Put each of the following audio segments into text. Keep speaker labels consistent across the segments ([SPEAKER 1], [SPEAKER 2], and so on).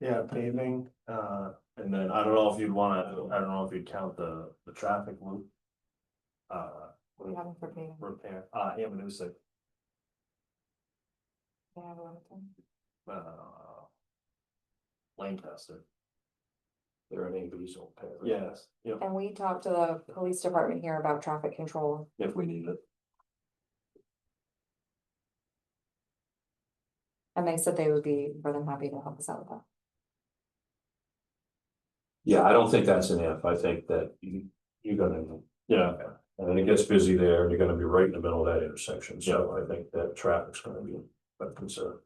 [SPEAKER 1] Yeah, paving, uh, and then I don't know if you'd wanna, I don't know if you'd count the, the traffic loop. Uh,
[SPEAKER 2] What do you have in for paving?
[SPEAKER 1] repair, uh, yeah, but it was like,
[SPEAKER 2] Do you have a limit then?
[SPEAKER 1] uh. Lancaster. There are any visual pair. Yes, yeah,
[SPEAKER 2] And we talked to the police department here about traffic control.
[SPEAKER 1] if we need it.
[SPEAKER 2] And they said they would be more than happy to help us out with that.
[SPEAKER 3] Yeah, I don't think that's an if, I think that you, you're gonna,
[SPEAKER 1] Yeah,
[SPEAKER 3] and then it gets busy there, and you're gonna be right in the middle of that intersection, so I think that traffic's gonna be a concern.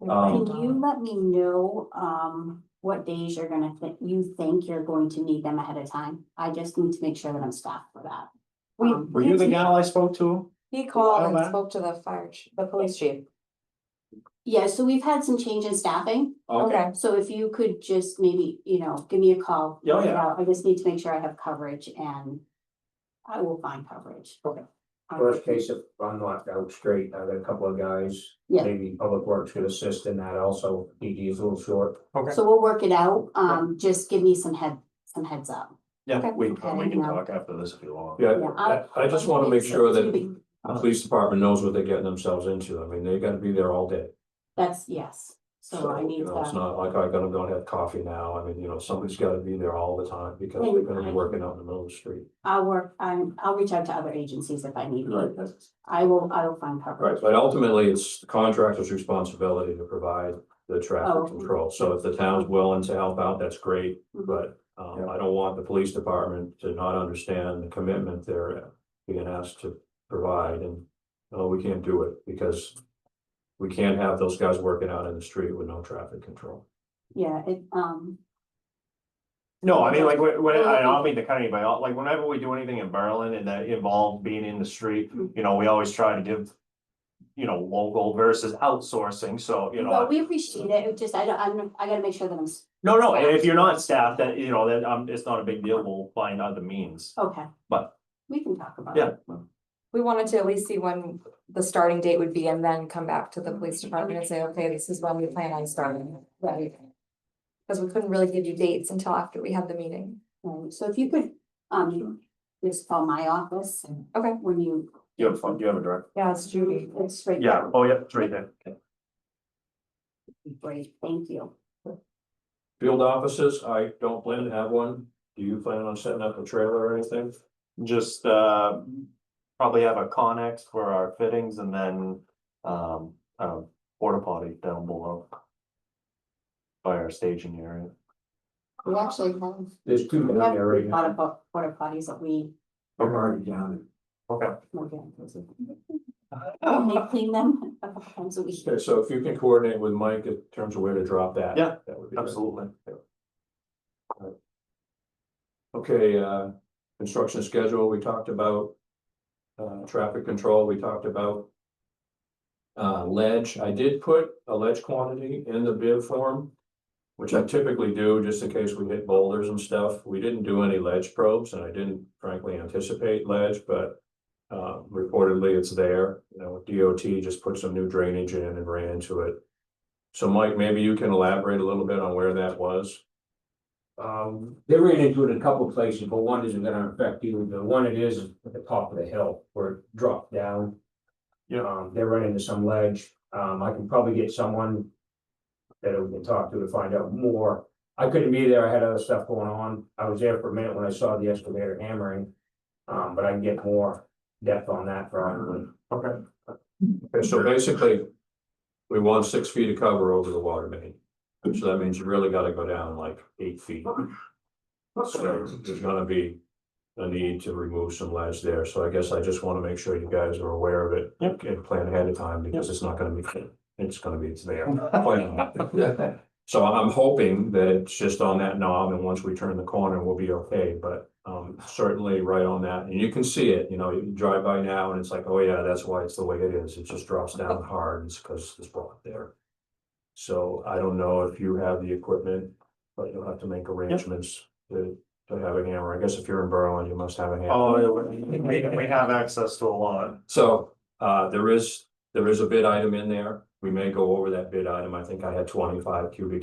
[SPEAKER 2] We
[SPEAKER 4] Can
[SPEAKER 3] Um,
[SPEAKER 2] might,
[SPEAKER 4] you
[SPEAKER 2] uh,
[SPEAKER 4] let me know, um, what days you're gonna, thi- you think you're going to need them ahead of time? I just need to make sure that I'm staffed for that.
[SPEAKER 2] We-
[SPEAKER 4] Um,
[SPEAKER 1] were you the gal I spoke to?
[SPEAKER 2] He called
[SPEAKER 1] Alright.
[SPEAKER 2] and spoke to the fire, ch- the police chief.
[SPEAKER 4] Yeah, so we've had some change in staffing,
[SPEAKER 2] Okay.
[SPEAKER 4] so if you could just maybe, you know, give me a
[SPEAKER 3] Oh,
[SPEAKER 4] call.
[SPEAKER 1] Yeah,
[SPEAKER 4] work it
[SPEAKER 1] yeah.
[SPEAKER 4] out. I just need to make sure I have coverage and I will find coverage.
[SPEAKER 3] Okay.
[SPEAKER 4] Um,
[SPEAKER 5] Worst case, if I'm locked out straight, I've got a couple of guys,
[SPEAKER 4] Yeah.
[SPEAKER 5] maybe Public Works could assist in that also, DD is a little short.
[SPEAKER 1] Okay.
[SPEAKER 4] So we'll work it out, um, just give me some head, some heads up.
[SPEAKER 1] Yeah,
[SPEAKER 2] Okay.
[SPEAKER 1] we, we can
[SPEAKER 4] Yeah.
[SPEAKER 1] talk after this if you want.
[SPEAKER 3] Yeah,
[SPEAKER 4] Yeah,
[SPEAKER 3] I,
[SPEAKER 4] I-
[SPEAKER 3] I just wanna make sure that the
[SPEAKER 4] Maybe-
[SPEAKER 3] police department knows what they're getting themselves into, I mean, they're gonna be there all day.
[SPEAKER 4] That's, yes, so I
[SPEAKER 3] you
[SPEAKER 4] need
[SPEAKER 3] know, It's
[SPEAKER 4] to,
[SPEAKER 3] not like I gotta go and have coffee now, I mean, you know, somebody's gotta be there all the time, because they're gonna be working out in the middle of the street.
[SPEAKER 4] I'll work, I'm, I'll reach out to other agencies if I need. to.
[SPEAKER 3] Right.
[SPEAKER 4] I will, I will find coverage.
[SPEAKER 3] Right, but ultimately, it's the contractor's responsibility to provide the
[SPEAKER 4] Oh.
[SPEAKER 3] traffic control, so if the town's willing to help out, that's great,
[SPEAKER 4] Mm-hmm.
[SPEAKER 3] but. Um, I don't want the police department to not understand the commitment they're being asked to provide, and, no, we can't do it, because. We can't have those guys working out in the street with no traffic control.
[SPEAKER 4] Yeah, it, um,
[SPEAKER 1] No, I mean, like, when, when, I don't mean to cut anybody off, like, whenever we do anything in Berlin and that involves being in the street, you know, we always try to give. You know, local versus outsourcing, so, you
[SPEAKER 4] but
[SPEAKER 1] know,
[SPEAKER 4] we appreciate it, it just, I don't, I'm, I gotta make sure that I'm, s-
[SPEAKER 1] no, no, and if you're not staffed, that, you know, that, um, it's not a big deal, we'll find other means.
[SPEAKER 4] okay.
[SPEAKER 1] But-
[SPEAKER 4] We can talk about
[SPEAKER 1] Yeah.
[SPEAKER 4] it.
[SPEAKER 2] We wanted to at least see when the starting date would be and then come back to the police department and say, okay, this is when we plan on starting. Right. Cause we couldn't really give you dates until after we had the meeting.
[SPEAKER 4] Um, So if you could, um, just call my office.
[SPEAKER 2] Okay.
[SPEAKER 4] When you,
[SPEAKER 1] You have fun, you have a direct.
[SPEAKER 2] Yeah, it's Judy.
[SPEAKER 4] it's straight.
[SPEAKER 1] Yeah, oh, yeah, it's right there.
[SPEAKER 4] Great, thank you.
[SPEAKER 3] Field offices, I don't plan to have one, do you plan on setting up a trailer or anything?
[SPEAKER 1] Just, uh, probably have a Connex for our fittings and then, um, uh, porta potty down below. By our staging area.
[SPEAKER 2] We actually have.
[SPEAKER 5] There's two down
[SPEAKER 4] Yeah.
[SPEAKER 5] there right
[SPEAKER 4] A lot of
[SPEAKER 5] now.
[SPEAKER 4] po- porta potties that we,
[SPEAKER 5] I'm already down
[SPEAKER 1] Okay.
[SPEAKER 4] we'll get those.
[SPEAKER 1] Oh.
[SPEAKER 4] And they clean them a couple times a week.
[SPEAKER 3] Okay, so if you can coordinate with Mike in terms of where to drop that.
[SPEAKER 1] Yeah,
[SPEAKER 3] that would be great.
[SPEAKER 1] Absolutely.
[SPEAKER 3] Okay, uh, construction schedule, we talked about. Uh, traffic control, we talked about. Uh, ledge, I did put a ledge quantity in the bid form. Which I typically do, just in case we hit boulders and stuff, we didn't do any ledge probes, and I didn't frankly anticipate ledge, but. Uh, reportedly, it's there, you know, DOT just put some new drainage in and ran into it. So Mike, maybe you can elaborate a little bit on where that was?
[SPEAKER 5] there. Um, they ran into it in a couple places, but one isn't gonna affect you, the one it is is at the top of the hill where it dropped down.
[SPEAKER 1] Yeah.
[SPEAKER 5] Um, they ran into some ledge, um, I can probably get someone. That we can talk to to find out more, I couldn't be there, I had other stuff going on, I was there for a minute when I saw the excavator hammering. Um, but I can get more depth on that probably.
[SPEAKER 1] Okay.
[SPEAKER 3] Okay, so basically, we want six feet of cover over the water main. So that means you really gotta go down like eight feet. So there's gonna be a need to remove some ledge there, so I guess I just wanna make sure you guys are aware of it.
[SPEAKER 1] Yep.
[SPEAKER 3] And plan ahead of time, because it's not gonna be, it's gonna be, it's there. Plan. So I'm hoping that it's just on that knob, and once we turn the corner, we'll be okay, but, um, certainly right on that, and you can see it, you know, you drive by now, and it's like, oh yeah, that's why it's the way it is, it just drops down hard, it's because it's brought there. So I don't know if you have the equipment, but you'll have to make arrangements to, to have a hammer, I guess if you're in Berlin, you must have a hammer.
[SPEAKER 1] Oh, yeah, we, we- we have access to a lot.
[SPEAKER 3] So, uh, there is, there is a bid item in there, we may go over that bid item, I think I had twenty-five cubic